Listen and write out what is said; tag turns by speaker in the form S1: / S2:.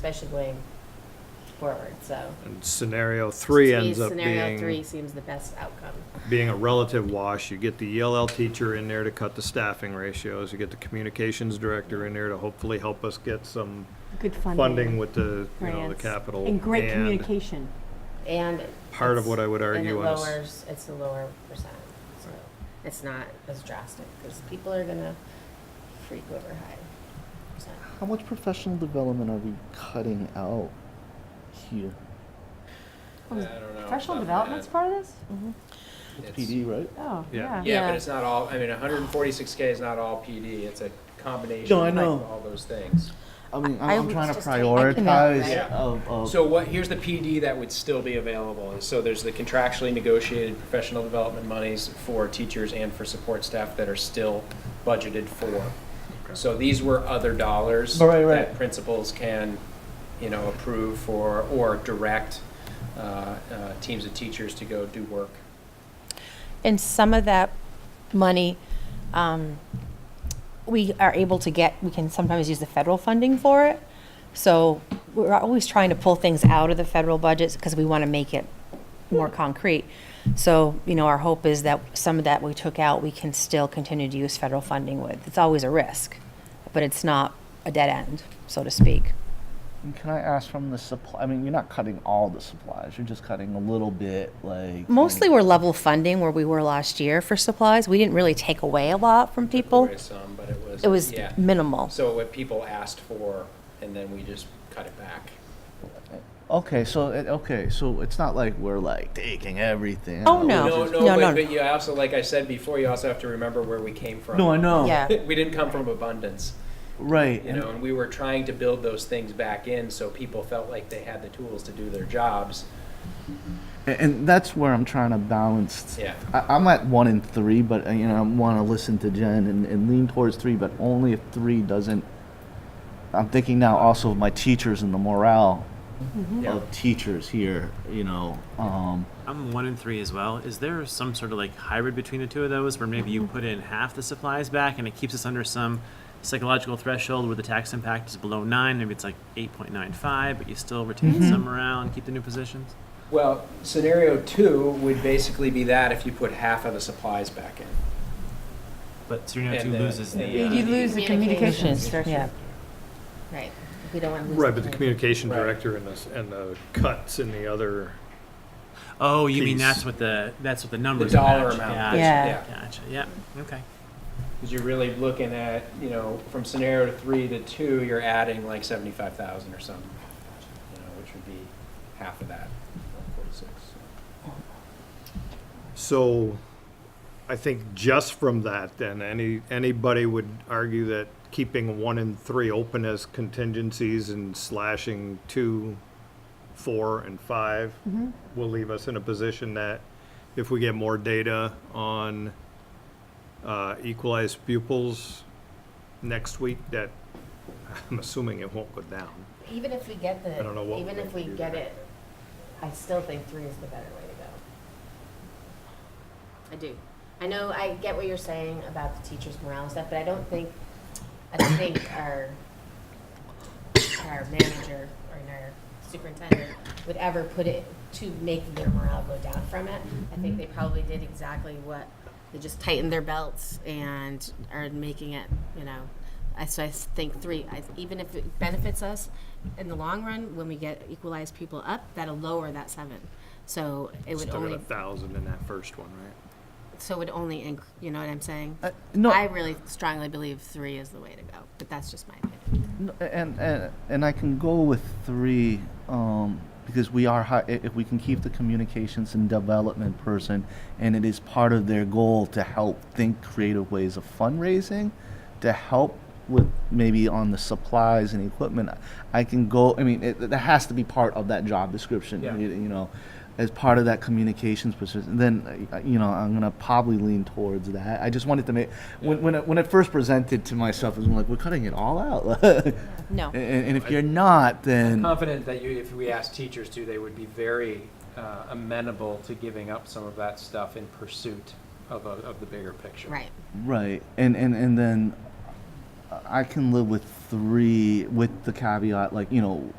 S1: especially forward, so.
S2: And scenario three
S1: To me,
S2: ends up
S1: Scenario three
S2: being,
S1: seems the best outcome.
S2: being a relative wash. You get the ELL teacher in there to cut the staffing ratios. You get the communications director in there to hopefully help us get some
S3: Good funding.
S2: funding with the, you know, the
S3: grants,
S2: capital.
S3: And great communication.
S1: And.
S2: Part of
S1: it's-
S2: what I would
S1: And it
S2: argue on a s-
S1: lowers, it's a lower percent, so it's not as drastic, because people are gonna freak over high percent.
S4: How much professional development are we cutting out here?
S3: Oh, is
S5: I don't know
S3: Professional
S5: about
S3: development's
S5: that.
S3: part of this?
S5: It's-
S4: PD, right?
S3: Oh,
S2: Yeah.
S3: yeah.
S5: Yeah,
S1: Yeah.
S5: but it's not all, I mean, hundred and forty-six K is not all PD, it's a combination
S4: No, I
S5: of
S4: know.
S5: all those things.
S4: I mean,
S1: I
S4: I'm, I'm
S1: would
S4: trying to
S1: just take- I can help,
S4: prioritize
S1: right?
S4: of, of.
S5: So what, here's the PD that would still be available, and so there's the contractually negotiated professional development monies for teachers and for support staff that are still budgeted for. So these were other dollars.
S4: Oh, Right, right.
S5: That principals can, you know, approve for, or direct, uh, uh, teams of teachers to go do work.
S6: And some of that money, um, we are able to get, we can sometimes use the federal funding for it. So we're always trying to pull things out of the federal budgets because we want to make it more concrete. So, you know, our hope is that some of that we took out, we can still continue to use federal funding with. It's always a risk, but it's not a dead end, so to speak.
S4: And Can I ask from the supply? I mean, you're not cutting all the supplies. You're just cutting a little bit, like.
S6: Mostly we're level funding where we were last year for supplies. We didn't really take away a lot from people.
S5: There was some, but it was.
S6: It was
S5: yeah.
S6: minimal.
S5: So what people asked for, and then we just cut it back.
S4: Okay, so it, okay, so it's not like we're like taking everything.
S6: Oh,
S4: out.
S6: no.
S5: No, no,
S6: No,
S5: but,
S6: no.
S5: but you also, like I said before, you also have to remember where we came from.
S4: No, I know.
S6: Yeah.
S5: We didn't come from abundance,
S4: Right.
S5: you know, and we were trying to build those things back in so people felt like they had the tools to do their jobs.
S4: And, and that's where I'm trying to balance.
S5: Yeah.
S4: I, I'm at one and three, but uh, you know, I want to listen to Jen and, and lean towards three, but only if three doesn't. I'm thinking now also of my teachers and the morale
S6: Mm-hmm.
S5: Yeah.
S4: of teachers here. You know, um,
S7: I'm one and three as well. Is there some sort of like hybrid between the two of those where maybe you put in half the supplies back and it keeps us under some psychological threshold where the tax impact is below nine? Maybe it's like 8.95, but you still retain some around, keep the new positions?
S5: Well, scenario two would basically be that if you put half of the supplies back in.
S7: But Serena
S5: And
S7: 2
S5: the-
S7: loses
S5: the,
S7: the.
S5: uh,
S3: You lose the communication
S6: Yeah.
S3: structure.
S1: Right, we don't want to lose.
S2: Right, but the communication
S5: Right.
S2: director and the, s- and the cuts in the other,
S7: Oh, you mean
S2: Piece.
S7: that's what the that's what the numbers
S5: dollar
S7: match.
S5: amount.
S7: Gotcha,
S6: Yeah.
S7: Gotcha. Yeah. Okay.
S5: Because you're really looking at, you know, from scenario three to two, you're adding like seventy-five thousand or something, you know, which would be half of that, forty-six.
S2: so I think just from that, then, any, anybody would argue that keeping one and three open as contingencies and slashing two, four, and five
S1: Mm-hmm.
S2: will leave us in a position that if we get more data on uh, equalized pupils next week, that I'm assuming it won't go down.
S1: Even if we get the,
S2: I don't know what
S1: even
S2: we
S1: if we
S2: do
S1: get
S2: there.
S1: it, I still think three is the better way to go. I do. I know, I get what you're saying about the teachers' morale and stuff, but I don't think, I don't think our, our manager or our superintendent would ever put it to make their morale go down from it. I think they probably did exactly what, they just tightened their belts and are making it, you know. I, so I think three, I, even if it benefits us in the long run, when we get equalized people up, that'll lower that seven. So it would
S2: Still got a
S1: only,
S2: thousand in that first one, right?
S1: so it would only, inc- you know what I'm saying?
S4: uh, no,
S1: I really strongly believe three is the way to go, but that's just my opinion.
S4: No, and, and and I can go with three um, because we are high, if we can keep the communications and development person, and it is part of their goal to help think creative ways of fundraising, to help with maybe on the supplies and equipment. I can go. I mean, it, that has to be part of that job description.
S5: Yeah.
S4: You, you know. As part of that communications position, then uh, you know I'm gonna probably lean towards that. I just wanted to make when when it, when it first presented to myself, it was like we're cutting it all out.
S6: No.
S4: A- And, and if you're not, then
S5: Confident that you, if we asked teachers to, they would be very uh, amenable to giving up some of that stuff in pursuit of, a- of the bigger picture.
S1: Right.
S4: right, and and and then I can live with three with the caveat, like you know,